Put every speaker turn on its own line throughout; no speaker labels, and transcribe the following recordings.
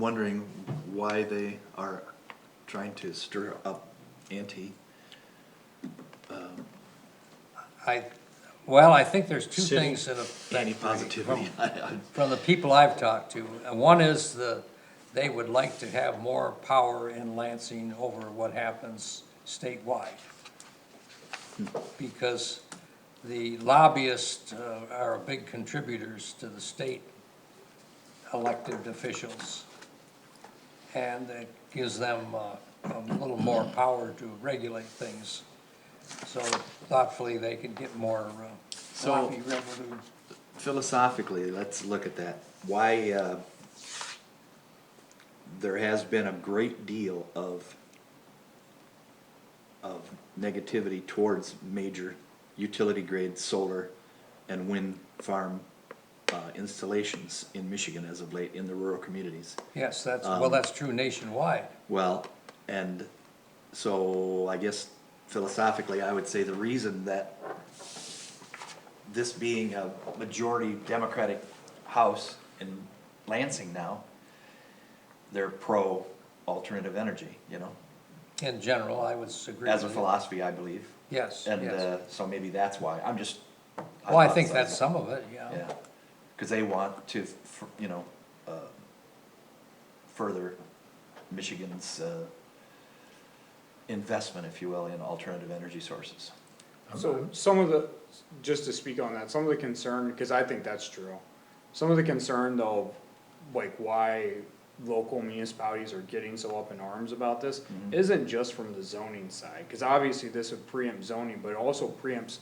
wondering why they are trying to stir up ante.
I, well, I think there's two
City
things that
Any
affect
positivity. I- I-
From the people I've talked to, Uh, one is the, they would like to have more power in Lansing over what happens statewide. Because the lobbyists uh, are big contributors to the state elected officials. And it gives them uh, a little more power to regulate things. So thoughtfully, they could get more uh,
So-
lobby revenue.
Philosophically, let's look at that. Why, uh, there has been a great deal of, of negativity towards major utility grade solar and wind farm uh, installations in Michigan as of late in the rural communities.
Yes, that's, well,
Um,
that's true nationwide.
Well, and so I guess philosophically, I would say the reason that this being a majority Democratic House in Lansing now, they're pro alternative energy, you know,
In general, I would agree.
as a
with you.
philosophy, I believe.
Yes,
And,
yes.
uh, so maybe that's why, I'm just.
Well, I think
hypothesizing.
that's some of it, yeah.
Yeah, cause they want to, f- you know, uh, further Michigan's, uh, investment, if you will, in alternative energy sources.
So some of the, just to speak on that, some of the concern, because I think that's true. Some of the concern though, like why local municipalities are getting so up in arms about this, isn't just from the zoning side, because obviously this would preempt zoning, but it also preempts,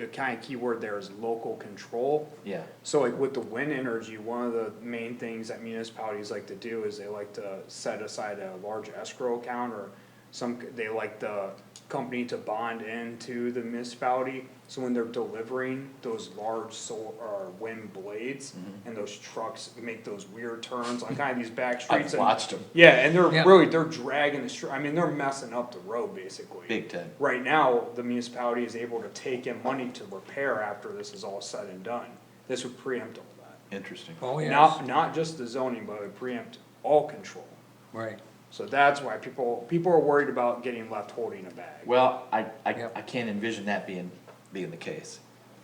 the kind of key word there is local control.
Yeah,
So like with the wind energy, one of the main things that municipalities like to do is they like to set aside a large escrow account or some, they like the company to bond into the municipality. So when they're delivering those large sol or wind blades
Mm-hmm.
and those trucks make those weird turns on kind of these back streets.
I've
and-
watched them,
Yeah, and they're
Yeah.
really, they're dragging the str- I mean, they're messing up the road basically.
big time.
Right now, the municipality is able to take in money to repair after this is all said and done. This would preempt all that.
Interesting.
Oh, yes,
Not, not just the zoning, but it would preempt all control.
right.
So that's why people, people are worried about getting left holding a bag.
Well, I, I,
Yep.
I can't envision that being, being the case,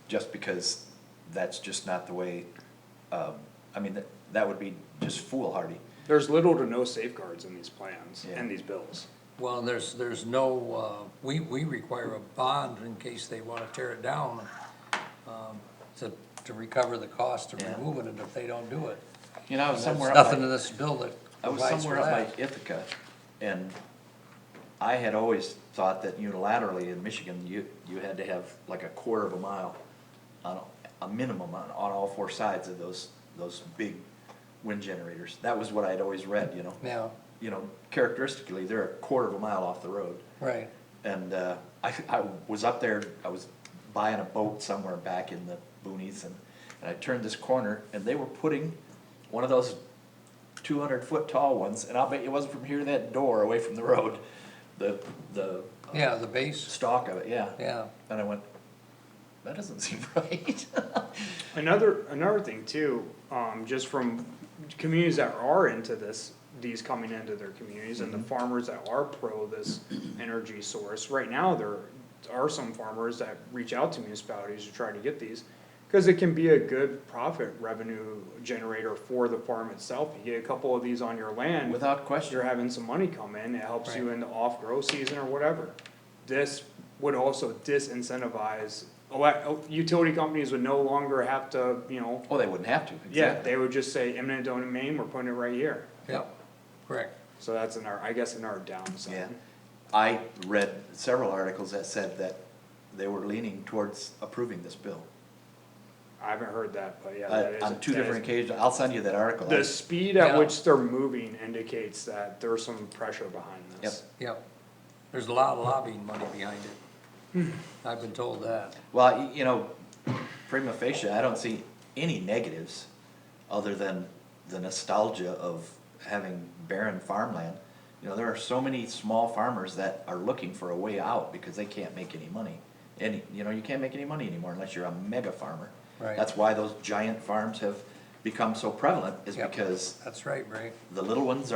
just because that's just not the way, um, I mean, that, that would be just foolhardy.
There's little to no safeguards in these plans
Yeah.
and these bills.
Well, there's, there's no, uh, we, we require a bond in case they wanna tear it down, um, to, to recover the cost of
Yeah.
removing it if they don't do it.
You know, I was
There's
somewhere up.
nothing
by-
in this bill that
I was
provides for
somewhere up by
that.
Ithaca, and I had always thought that unilaterally in Michigan, you, you had to have like a quarter of a mile on, a minimum on, on all four sides of those, those big wind generators. That was what I'd always read, you know?
Yeah,
You know, characteristically, they're a quarter of a mile off the road.
right,
And, uh, I, I was up there, I was buying a boat somewhere back in the boonies and, and I turned this corner and they were putting one of those two hundred foot tall ones, and I'll bet it wasn't from here to that door away from the road, the, the
yeah, the base,
stalk of it, yeah.
yeah.
And I went, that doesn't seem right.
Another, another thing too, um, just from communities that are into this, these coming into their communities and the farmers that are pro this energy source, right now, there are some farmers that reach out to municipalities to try to get these. Cause it can be a good profit revenue generator for the farm itself, you get a couple of these on your land.
Without
You're
question,
having some money come in, it helps you in the off-grow season or whatever. This would also disincentivize, ele- utility companies would no longer have to, you know,
oh, they wouldn't have to,
yeah,
exactly.
they would just say eminent domain, we're putting it right here.
Yep, correct.
So that's in our, I guess in our downside.
Yeah, I read several articles that said that they were leaning towards approving this bill.
I haven't heard that, but yeah. that
Uh,
is-
on two
that is-
different occasions, I'll send you that article.
The speed at
Yeah.
which they're moving indicates that there's some pressure behind
Yep.
this.
Yep, there's a lot of lobbying money behind it. I've been told that.
Well, y- you know, prima facie, I don't see any negatives other than the nostalgia of having barren farmland. You know, there are so many small farmers that are looking for a way out because they can't make any money. Any, you know, you can't make any money anymore unless you're a mega farmer.
Right.
That's why those giant farms have
become so prevalent is
Yep.
because
That's right, Ray.
the little ones